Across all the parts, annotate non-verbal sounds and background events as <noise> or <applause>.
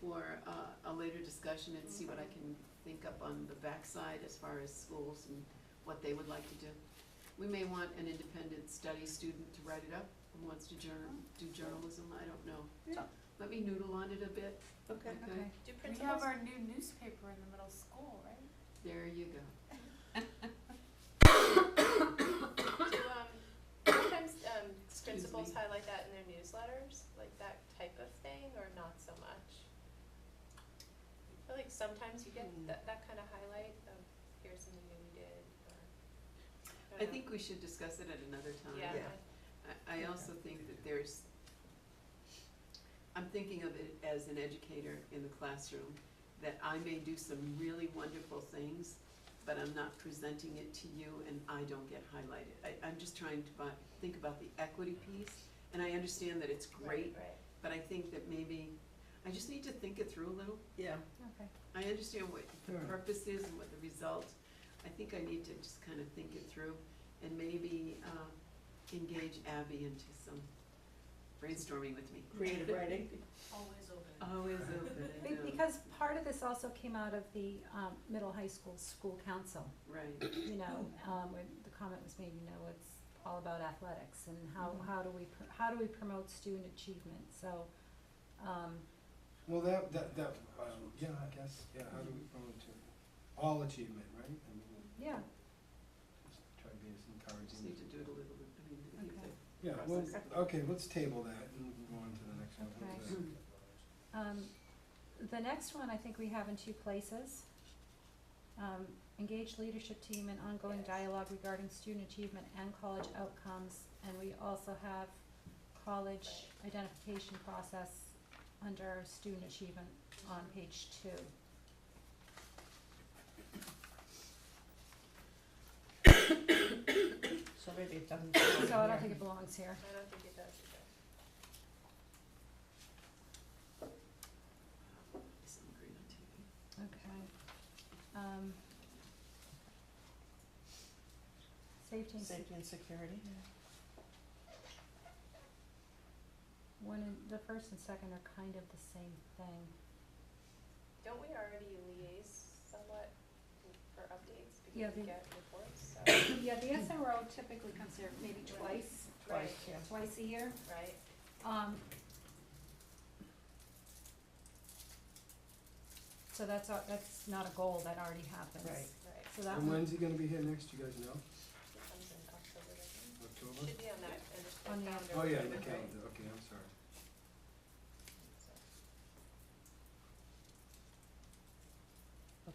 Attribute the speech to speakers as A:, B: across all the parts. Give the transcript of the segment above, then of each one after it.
A: for uh, a later discussion and see what I can think up on the backside as far as schools and what they would like to do. We may want an independent study student to write it up, who wants to journal, do journalism, I don't know.
B: Yeah.
A: Let me noodle on it a bit,
B: Okay.
A: okay?
C: Do
D: We
C: principals,
D: have our new newspaper in the middle school, right?
A: There you go.
C: do, um, <coughs> sometimes, um,
A: Excuse
C: principals
A: me.
C: highlight that in their newsletters, like that type of thing, or not so much? I feel like sometimes you get
A: Hmm.
C: that, that kind of highlight of, here's something that we did, or, I
A: I
C: don't know.
A: think we should discuss it at another time.
C: Yeah,
B: Yeah.
A: I, I also think that there's, I'm thinking of it as an educator in the classroom, that I may do some really wonderful things, but I'm not presenting it to you and I don't get highlighted. I, I'm just trying to bu think about the equity piece, and I understand that it's
C: right,
A: great,
C: right,
A: but I think that maybe, I just need to think it through a little.
B: Yeah.
D: Okay.
A: I understand what the
B: Sure.
A: purpose is and what the result. I think I need to just kind of think it through and maybe uh, engage Abby into some brainstorming with me.
B: Creative writing.
A: <laughs>
D: Always open.
A: Always open, I
E: Be-
A: know.
E: Because part of this also came out of the um, middle high school school council,
A: Right,
E: you know, um, when the comment was made, you know, it's all about athletics and how,
A: Mhm.
E: how do we, pr- how do we promote student achievement, so, um,
F: Well, that, that, that, um, yeah, I guess, yeah, how do we promote to, all achievement, right? I mean,
E: yeah,
F: just try to be as
A: just
F: encouraging
A: need
F: as
A: to
F: we
A: do it a
F: can.
A: little, bit. I mean, I think
E: Okay.
A: that-
F: Yeah, well,
A: process.
B: uh,
F: okay, let's table that and move on to the next one. Mm.
E: Okay.
F: How's that?
E: Um, the next one, I think we have in two places. Um, engage leadership team and ongoing
C: Yes.
E: dialogue regarding student achievement and college outcomes, and we also have college identification process under student achievement on
C: Mm-hmm.
E: page two.
B: So maybe it doesn't.
E: So I don't think it belongs here.
C: I don't think it does either.
A: Some green on TV.
E: Okay. Um. Safety and
B: Safety and security.
E: one and, the first and second are kind of the same thing.
C: Don't we already liaise somewhat for updates, because
E: Yeah,
C: we
E: they-
C: get reports, so,
E: <coughs> Yeah, the SRO typically comes here maybe
C: twice,
B: Twice,
C: Right.
B: yeah.
E: twice a year.
C: right?
E: Um. So that's, a- that's not a goal, that already happens.
B: Right.
C: Right,
E: So that
F: And
E: one,
F: when's he gonna be here next, you guys know?
C: it comes in October, doesn't it? Should
F: October?
C: be on that, and it's the
E: On the-
C: calendar.
F: Oh, yeah, the
C: right?
F: calendar, okay, I'm sorry.
C: So-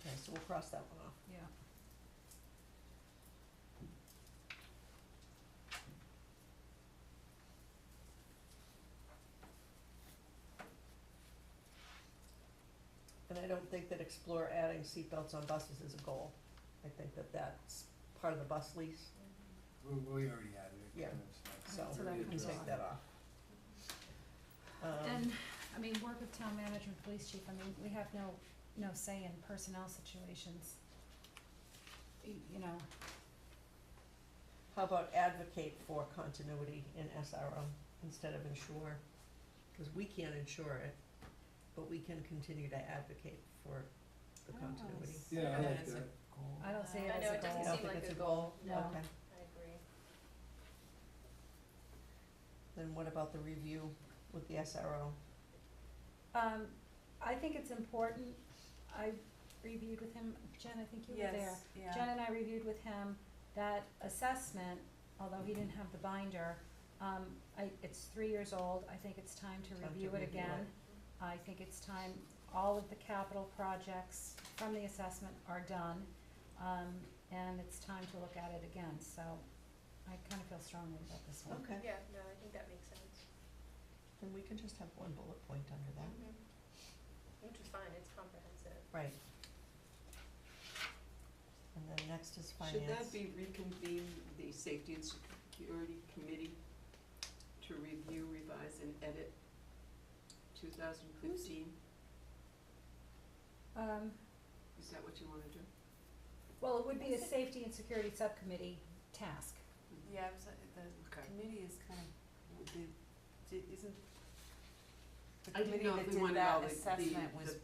B: Okay, so we'll cross that one off.
E: yeah.
B: And I don't think that explore adding seatbelts on buses is a goal. I think that that's part of the bus lease,
F: We, we already had it.
B: Yeah.
F: and it's not-
B: so
E: So that
B: we can
E: comes
B: take
E: off.
B: that off. Um,
E: And, I mean, work with town manager and police chief, I mean, we have no, no say in personnel situations. Y- You know,
B: How about advocate for continuity in SRO instead of ensure? Cause we can't ensure it, but we can continue to advocate for the
E: Oh,
B: continuity.
E: s-
F: Yeah, I
A: Yeah,
F: like
A: it's a-
F: that.
E: I don't see it
C: I
E: as
C: know,
E: a
C: it doesn't
E: goal.
B: I don't
C: seem
B: think
C: like
B: it's
C: a
B: a goal.
C: No,
E: No.
B: Okay,
C: I agree.
B: then what about the review with the SRO?
E: Um, I think it's important, I reviewed with him, Jen, I think you were there. Jen and I reviewed with him that assessment, although he didn't have the binder, um, I, it's three years old, I think it's time to
B: Time to
E: review it
B: review
E: again. I think it's time, all of the capital projects from the assessment are done, um, and it's time to look at it again, so I kinda feel strongly about this one.
B: Okay,
C: Yeah, no, I think that makes sense.
B: then we can just have one bullet point under that.
C: Mm-hmm. Which is fine, it's comprehensive.
B: Right. And then next is finance.
A: Should that be reconvene the safety and security committee to review, revise, and edit two thousand fifteen?
E: Um,
A: Is that what you wanna do?
E: well, it would be a
D: Is it-
E: safety and security subcommittee task.
D: Yeah, uh, I'm so- the
A: Okay.
D: committee is kind of, the, di- isn't, the
A: I didn't know if we wanted all the- the- the